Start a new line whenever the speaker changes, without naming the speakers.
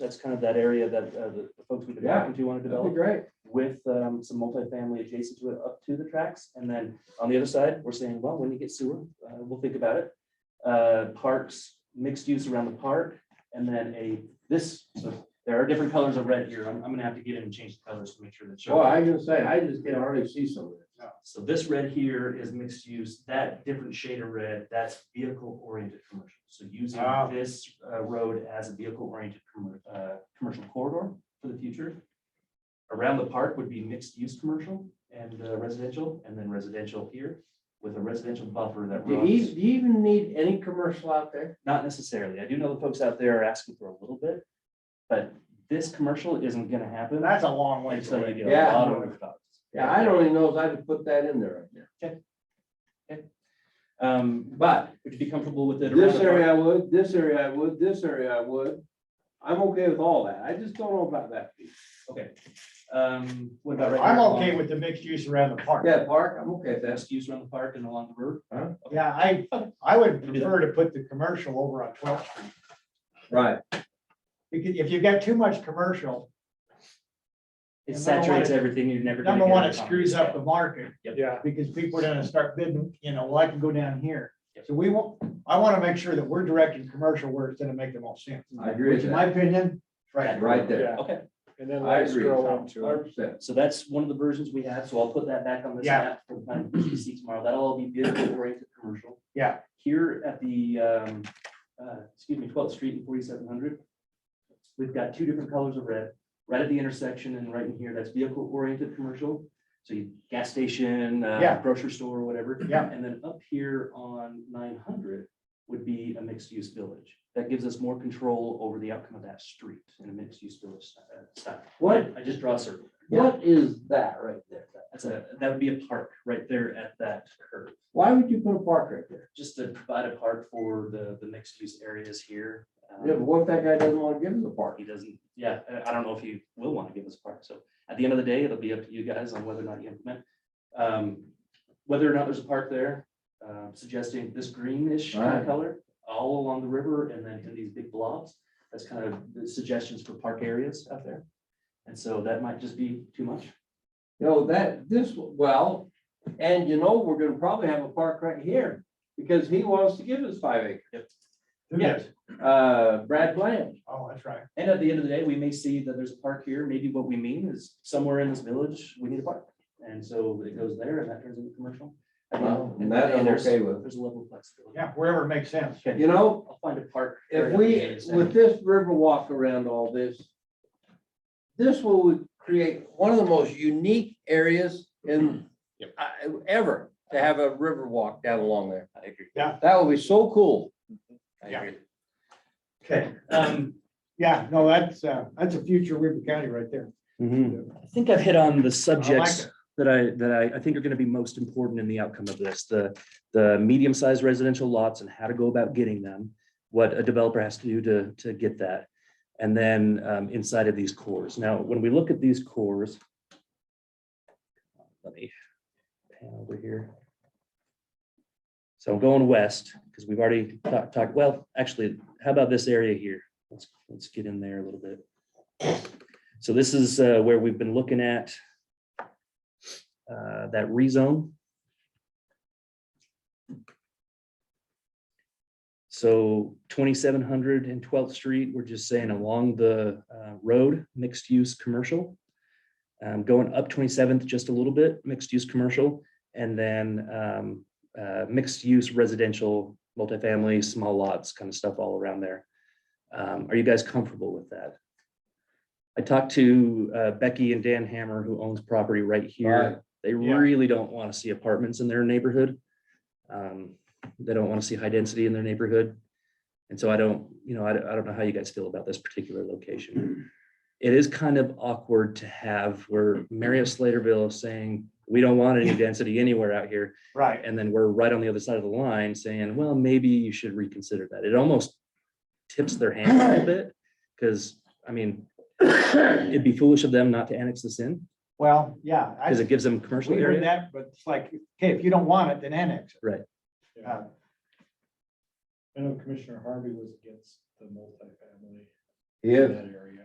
that's kind of that area that uh, the the folks we've been
Yeah.
talking to want to
That'd be
develop
great.
with um, some multifamily adjacent to it up to the tracks. And then on the other side, we're saying, well, when you get sewer, uh, we'll think about it. Uh, Parks, mixed use around the park, and then a, this, so there are different colors of red here. I'm, I'm gonna have to get in and change the colors to make sure that. show.
Well, I just say, I just can already see some of it.
So this red here is mixed use, that different shade of red, that's vehicle oriented commercial. So using
Ah.
this uh, road as a vehicle oriented commercial corridor for the future. Around the park would be mixed use commercial and uh, residential, and then residential here with a residential buffer that
Do you,
runs.
do you even need any commercial out there?
Not necessarily. I do know the folks out there are asking for a little bit, but this commercial isn't gonna happen.
That's a long way.
Until you
away.
get a
Yeah.
lot of rooftops.
Yeah, I don't even know if I could put that in there right now.
Um, but would you be comfortable with it? around
This
the park?
area I would, this area I would, this area I would. I'm okay with all that. I just don't know about that piece.
Um, what about? right
I'm
here
okay
along
with the mixed use around the park.
Yeah, park, I'm okay with
the
that.
Best use around the park and along the road.
Yeah, I, I would prefer to put the commercial over on twelfth street.
Right.
Because if you've got too much commercial,
It
And number one,
saturates
it-
everything. You're never. gonna
number
get
one,
out
it
of town.
screws up the market.
Yep.
Yeah.
Because people are gonna start bidding, you know, well, I can go down here.
Yep.
So we want, I wanna make sure that we're directing commercial where it's gonna make the most sense.
I agree
Which
with
in my
that.
opinion, right.
Right there.
Yeah,
Okay,
and then
I
let's
agree.
go on to
Hundred percent.
so that's one of the versions we have. So I'll put that back on this
Yeah.
map for the plan you see tomorrow. That'll all be vehicle oriented commercial.
Yeah.
Here at the, um, uh, excuse me, twelfth street and forty-seven hundred. We've got two different colors of red, right at the intersection and right in here, that's vehicle oriented commercial. So you, gas station, uh,
Yeah.
grocery store or whatever.
Yeah.
And then up here on nine hundred would be a mixed use village. That gives us more control over the outcome of that street in a mixed use village uh, style.
What,
I just draw a circle.
what is that right there?
That's a, that would be a park right there at that curve,
Why would you put a park right there?
just to provide a park for the, the mixed use areas here. Um,
Yeah, but what if that guy doesn't want to give us a park?
He doesn't, yeah, I- I don't know if he will want to give us a park, so at the end of the day, it'll be up to you guys on whether or not you implement. Um, whether or not there's a park there, uh, suggesting this greenish kind of
Right.
color all along the river and then in these big blobs. That's kind of the suggestions for park areas out there. And so that might just be too much.
You know, that, this, well, and you know, we're gonna probably have a park right here, because he wants to give us five acres.
Who
Yeah.
knows?
Uh, Brad Bland,
Oh, that's right.
And at the end of the day, we may see that there's a park here. Maybe what we mean is somewhere in this village, we need a park. And so it goes there and that turns into commercial. I don't know.
and that I'm
There's-
okay with.
There's a level of flexibility.
Yeah, wherever it makes sense.
Okay.
You know,
I'll find a park.
if
area
we,
that's-
with this river walk around all this, this will create one of the most unique areas in, I- ever, to have a river walk down along there.
I agree.
That would be so cool.
I
Yeah.
agree.
Okay.
Um,
Yeah, no, that's, uh, that's a future Weaver County right there.
I think I've hit on the
I like
subjects
it.
that I, that I, I think are gonna be most important in the outcome of this, the, the medium-sized residential lots and how to go about getting them, what a developer has to do to, to get that, and then um, inside of these cores. Now, when we look at these cores, let me pan over here. So I'm going west, because we've already talked, talked, well, actually, how about this area here? Let's, let's get in there a little bit. So this is uh, where we've been looking at uh, that rezone. So 2700 and 12th Street, we're just saying along the uh, road, mixed use commercial. Um, Going up 27th, just a little bit, mixed use commercial, and then um, uh, mixed use residential, multifamily, small lots, kind of stuff all around there. Um, Are you guys comfortable with that? I talked to uh, Becky and Dan Hammer, who owns property right here.
Right.
They
Yeah.
really don't want to see apartments in their neighborhood. Um, They don't want to see high density in their neighborhood. And so I don't, you know, I don't, I don't know how you guys feel about this particular location. It is kind of awkward to have where Marriott Sladeville is saying, we don't want any density anywhere out here.
Right.
And then we're right on the other side of the line saying, well, maybe you should reconsider that. It almost tips their hand a little bit. Because, I mean, it'd be foolish of them not to annex this in
Well, yeah. I-
because it gives them commercial
We heard
area.
that, but it's like, okay, if you don't want it, then annex it.
Yeah. I know Commissioner Harvey was against the multifamily
Yeah.
that area.